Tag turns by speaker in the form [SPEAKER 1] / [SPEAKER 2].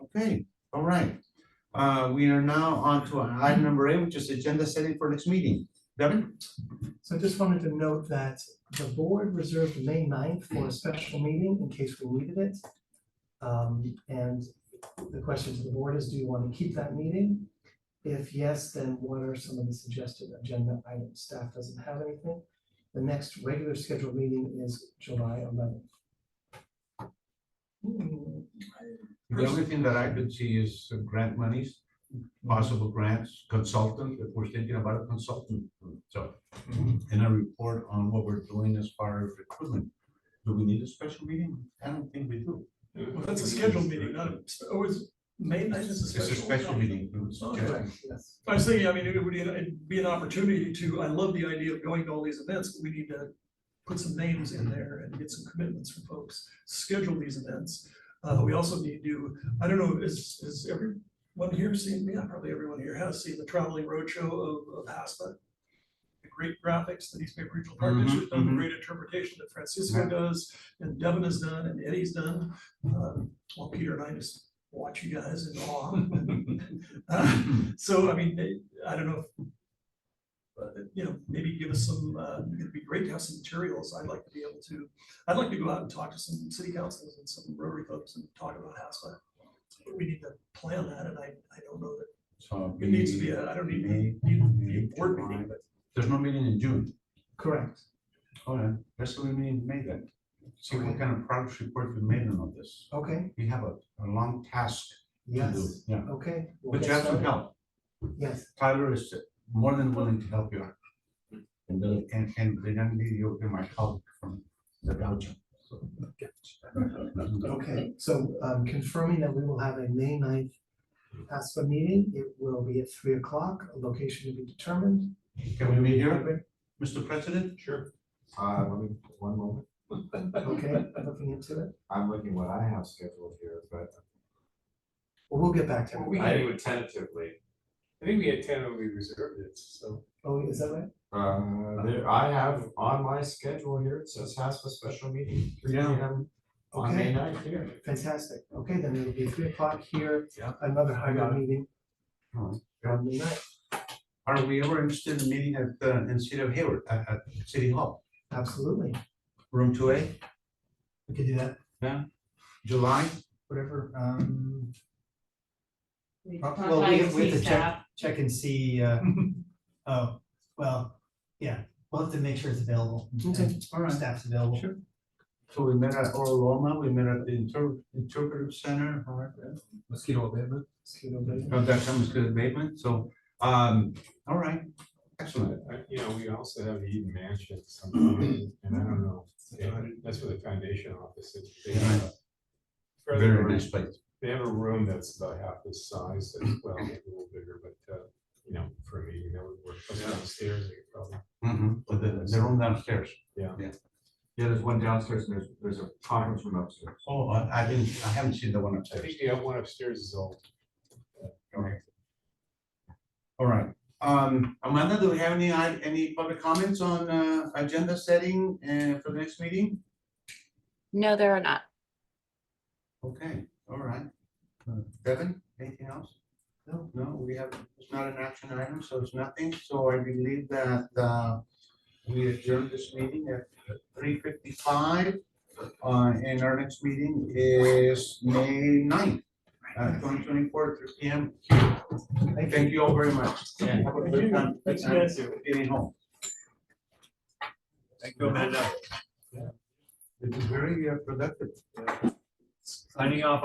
[SPEAKER 1] Okay, all right. Uh, we are now on to item number eight, which is agenda setting for next meeting. Devin?
[SPEAKER 2] So I just wanted to note that the board reserved May 9th for a special meeting in case we needed it. Um, and the question to the board is, do you want to keep that meeting? If yes, then what are some of the suggested agenda items? Staff doesn't have anything. The next regular scheduled meeting is July eleventh.
[SPEAKER 1] The only thing that I could see is uh, grant monies, possible grants, consultant, if we're thinking about a consultant. So, and a report on what we're doing as far as recruitment. Do we need a special meeting? I don't think we do.
[SPEAKER 3] Well, that's a scheduled meeting, not a, it was, May night is a
[SPEAKER 1] It's
[SPEAKER 3] special.
[SPEAKER 1] a special meeting. it's
[SPEAKER 3] Oh,
[SPEAKER 1] just-
[SPEAKER 2] Correct, yes.
[SPEAKER 3] I was thinking, I mean, it would be, it'd be an opportunity to, I love the idea of going to all these events, but we need to put some names in there and get some commitments from folks, schedule these events. Uh, we also need to, I don't know, is, is everyone here seen, yeah, probably everyone here has seen the traveling roadshow of, of HASPA. The great graphics that East Bay Regional Park
[SPEAKER 1] Mhm,
[SPEAKER 3] District, done the
[SPEAKER 1] mhm.
[SPEAKER 3] great interpretation that
[SPEAKER 1] Yeah.
[SPEAKER 3] Francisco does, and Devin has done, and Eddie's done. Uh, Well, Peter and I just watch you guys in awe. Uh, So, I mean, they- I don't know. if- But, you know, maybe give us some, uh, it'd be great to have some materials. I'd like to be able to, I'd like to go out and talk to some city councils and some Rotary folks and talk about HASA. We need to plan that and I, I don't know that,
[SPEAKER 1] So
[SPEAKER 3] it needs to be, a- I don't need,
[SPEAKER 1] May,
[SPEAKER 3] need,
[SPEAKER 1] May,
[SPEAKER 3] need a board
[SPEAKER 1] July.
[SPEAKER 3] meeting, but
[SPEAKER 1] There's no meeting in June.
[SPEAKER 2] Correct.
[SPEAKER 1] All right, that's what we mean in May then. See what kind of progress report we made on all this.
[SPEAKER 2] Okay,
[SPEAKER 1] We have a, a long task to do.
[SPEAKER 2] yes,
[SPEAKER 1] Yeah,
[SPEAKER 2] okay. we'll
[SPEAKER 1] but
[SPEAKER 2] get
[SPEAKER 1] you have some
[SPEAKER 2] started.
[SPEAKER 1] help.
[SPEAKER 2] Yes,
[SPEAKER 1] Tyler is more than willing to help you out. And the, and, and the young lady, you'll be my colleague from the Belgium. so.
[SPEAKER 2] Okay, so um confirming that we will have a May 9th ASPA meeting, it will be at three o'clock, a location to be determined.
[SPEAKER 1] Can we meet here, Mr. President?
[SPEAKER 4] Sure. Uh, let me, one moment,
[SPEAKER 2] Okay, looking into it,
[SPEAKER 4] I'm looking what I have scheduled here, but.
[SPEAKER 2] well, we'll get back to
[SPEAKER 5] We
[SPEAKER 2] it.
[SPEAKER 5] had it tentatively. I think we had ten when we reserved it, so.
[SPEAKER 2] Oh, is that right?
[SPEAKER 4] Uh, there, I have on my schedule here, it says has a special meeting, three P
[SPEAKER 1] Yeah.
[SPEAKER 4] M on May ninth here.
[SPEAKER 2] Fantastic, okay, then it'll be three o'clock here,
[SPEAKER 1] Yeah.
[SPEAKER 2] another
[SPEAKER 1] got
[SPEAKER 2] hybrid meeting
[SPEAKER 1] Alright.
[SPEAKER 2] on May 9th.
[SPEAKER 1] Are we ever interested in meeting at, the in City of Hayward, at, at City Hall,
[SPEAKER 2] absolutely,
[SPEAKER 1] room two A,
[SPEAKER 6] We could do that,
[SPEAKER 1] July?
[SPEAKER 6] whatever, um,
[SPEAKER 7] We
[SPEAKER 6] Well,
[SPEAKER 7] talked
[SPEAKER 6] well,
[SPEAKER 7] about
[SPEAKER 6] we-
[SPEAKER 7] your
[SPEAKER 6] we have to
[SPEAKER 7] fee
[SPEAKER 6] check-
[SPEAKER 7] stop.
[SPEAKER 6] check and see, uh, oh, well, yeah, we'll have to make sure it's available.
[SPEAKER 2] Okay,
[SPEAKER 6] All right. Staff's available.
[SPEAKER 1] Sure. So we met at Oral Roma, we met at the inter- interpretive center, or mosquito abatement.
[SPEAKER 2] excuse me.
[SPEAKER 1] Oh, that comes to abatement, so, um, all right, excellent.
[SPEAKER 5] I- uh, You know, we also have the Eden Mansion sometime, and I don't know, they- that's where the foundation office is. They have a-
[SPEAKER 1] Very nice place.
[SPEAKER 5] They have a room that's about half this size, as well, maybe a little bigger, but, uh, you know, for me, that would work, plus downstairs, they could probably.
[SPEAKER 1] Mhm, But the, the room downstairs.
[SPEAKER 4] Yeah, there's one downstairs, and there's, there's a conference room upstairs.
[SPEAKER 1] Oh, I, I didn't, I haven't seen the one
[SPEAKER 5] I
[SPEAKER 1] upstairs.
[SPEAKER 5] think the one upstairs is old.
[SPEAKER 1] All right, um, Amanda, do we have any, i- any public comments on, uh, agenda setting, uh, for the next meeting?
[SPEAKER 8] No, there are not.
[SPEAKER 1] Okay, all right. Devin, anything else? No, no, we have, it's not an action item, so it's nothing, so I believe that, uh, we adjourn this meeting at three fifty-five. Uh, and our next meeting is May 9th, uh, twenty twenty-four, three P M. Thank you all very much. Have a good time.
[SPEAKER 3] Thanks, guys.
[SPEAKER 1] Getting home.
[SPEAKER 4] Thank you, Amanda.
[SPEAKER 1] It's very uh, productive.
[SPEAKER 4] Signing off